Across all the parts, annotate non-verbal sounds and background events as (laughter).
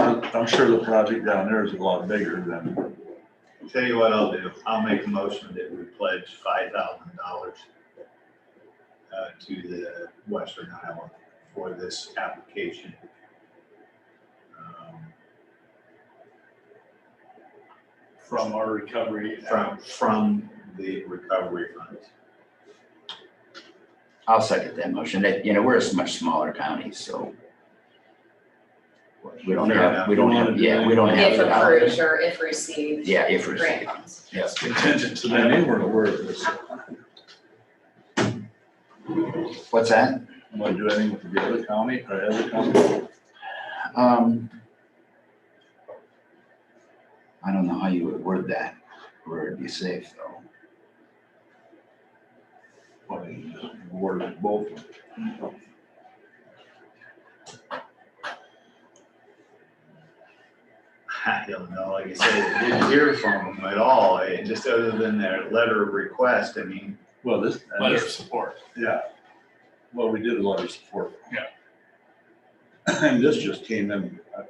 I'm sure the project down there is a lot bigger than, Tell you what I'll do, I'll make a motion that we pledge five thousand dollars uh, to the Western Iowa for this application. Um, from our recovery. From, from the recovery funds. I'll second that motion. That, you know, we're a much smaller county, so. We don't have, we don't have, yeah, we don't have If the dollars. approved or if received. Yeah, if we're, Grant funds. yes. Contingent to I that. knew we're aware of this. What's that? I'm gonna do anything with the other county or other county. Um. I don't know how you would word that, where it'd be safe though. Well, you just Award it both. I don't know, like I said, I didn't hear from them at all, eh, just other than their letter of request, I mean, Well, this. Letter of support. Yeah. Well, we did a letter of support. Yeah. And this just came in, uh,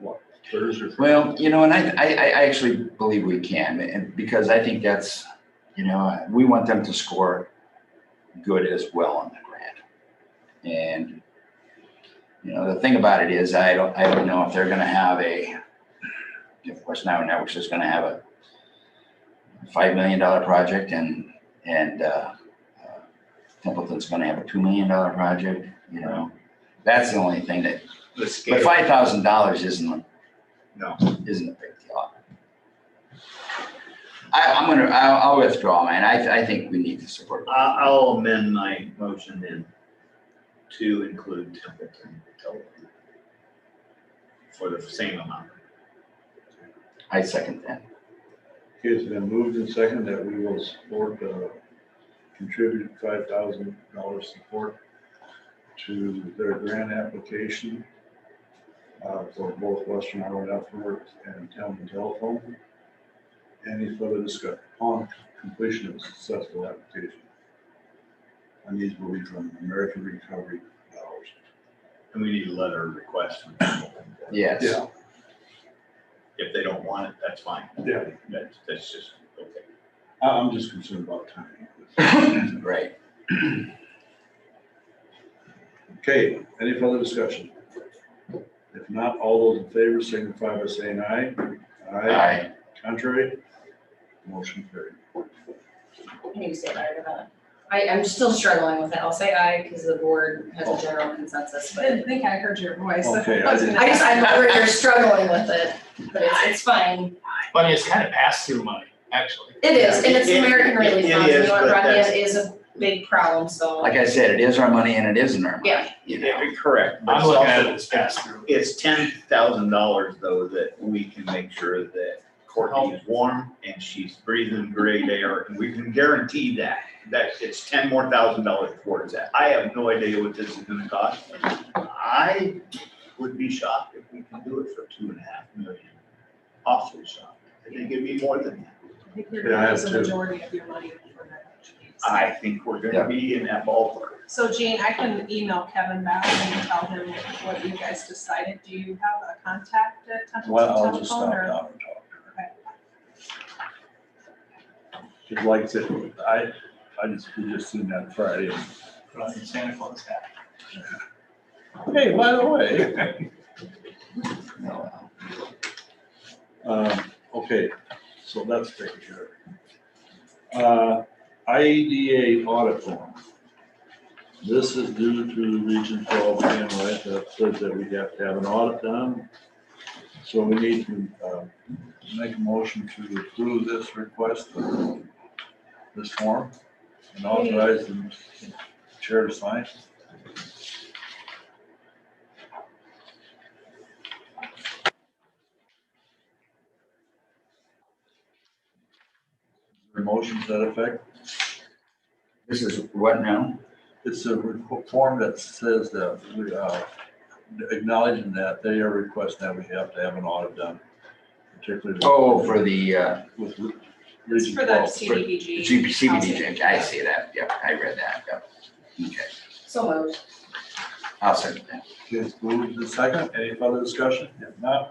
what, Thursday? or Friday? Well, you know, and I, I, I I actually believe we can, and because I think that's, you know, we want them to score good as well on the grant. And, you know, the thing about it is, I don't, I don't know if they're gonna have a, if West Nile Networks is gonna have a five million dollar project and, and, uh, uh, Templeton's gonna have a two million dollar project, you know? That's the only thing that, the but scale. five thousand dollars isn't No, isn't a big deal. I, I'm gonna, I'll, I'll withdraw, man. I, I think we need to support. I, I'll amend my motion then to include Templeton Telephone for the same amount. I second that. Okay, it's been moved and second that we will support, uh, contribute five thousand dollars support to their grant application uh, for both Western Iowa Networks and Town and Telephone. Any further discussion on completion of successful application? And these will be from American Recovery dollars. And we need a letter of request from Templeton. Yes. Yeah. If they don't want it, that's fine. Yeah. That's, that's just, okay. I- I'm just concerned about timing. Right. Okay, any further discussion? If not, all those in favor signify by saying aye. I, Contrary? Motion carried. I need to say aye to that. I, I'm still struggling with it. I'll say aye because the board has a general consensus, I but didn't think I heard your voice. Okay, I was didn't- gonna- I just, I'm aware (laughs) you're struggling with it, but it's, it's fine. But it's kind of pass-through money, actually. It is, and it's American Relief It- it Funds, you is, know, what, but Rodney, that's- it is a big problem, so. like I said, it is our money and it isn't our money. Yeah. You know, Yeah, correct. but I'm it's looking at also- it as pass-through. It's ten thousand dollars though that we can make sure that Courtney is warm and she's breathing great air and we can guarantee that. That it's ten more thousand dollars towards that. I have no idea what this is gonna cost. I would be shocked if we can do it for two and a half million. Awfully shocked. I think it'd be more than that. I think you're Yeah, I gonna have use the two. majority of your money for that. I think we're gonna be in that ballpark. So Gene, I can email Kevin back and tell him what you guys decided. Do you have a contact at Templeton Well, I'll just Telephone stop or? now and talk. Just like I said, I, I just, we just seen that Friday. Right, Santa Claus hat. Hey, by the way. no, uh, Um, okay, so that's taken care of. Uh, IEDA audit form. This is due to Region twelve, and right, that says that we have to have an audit done. So we need to, um, make a motion to approve this request, this form, and authorize the chair to sign. The motion to that effect? This is what now? It's a re- form that says that we, uh, acknowledging that they are requesting that we have to have an audit done, particularly. with- Oh, for the, uh, With. re- It's region for the twelve. CDBG. GPCBD, I see that. Yep, I read that. Yep. Okay, So moved. I'll second that. Okay, move to second. Any further discussion? If not,